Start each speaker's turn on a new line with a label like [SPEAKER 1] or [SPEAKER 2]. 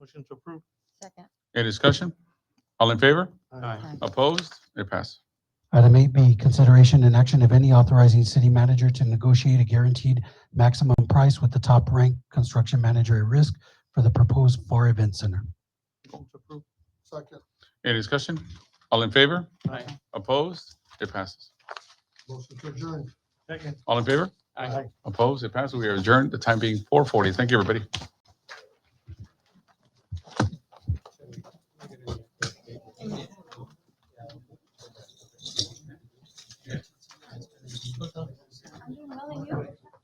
[SPEAKER 1] Motion to approve.
[SPEAKER 2] Second.
[SPEAKER 3] Any discussion? All in favor?
[SPEAKER 2] Aye.
[SPEAKER 3] Opposed? It passes.
[SPEAKER 4] Item eight B, consideration and action, if any, authorizing city manager to negotiate a guaranteed maximum price with the top-ranked construction manager at risk for the proposed FAR Event Center.
[SPEAKER 1] Motion to approve. Second.
[SPEAKER 3] Any discussion? All in favor?
[SPEAKER 1] Aye.
[SPEAKER 3] Opposed? It passes.
[SPEAKER 1] Motion to adjourn. Second.
[SPEAKER 3] All in favor? Opposed? It passes. We are adjourned, the time being four forty. Thank you, everybody.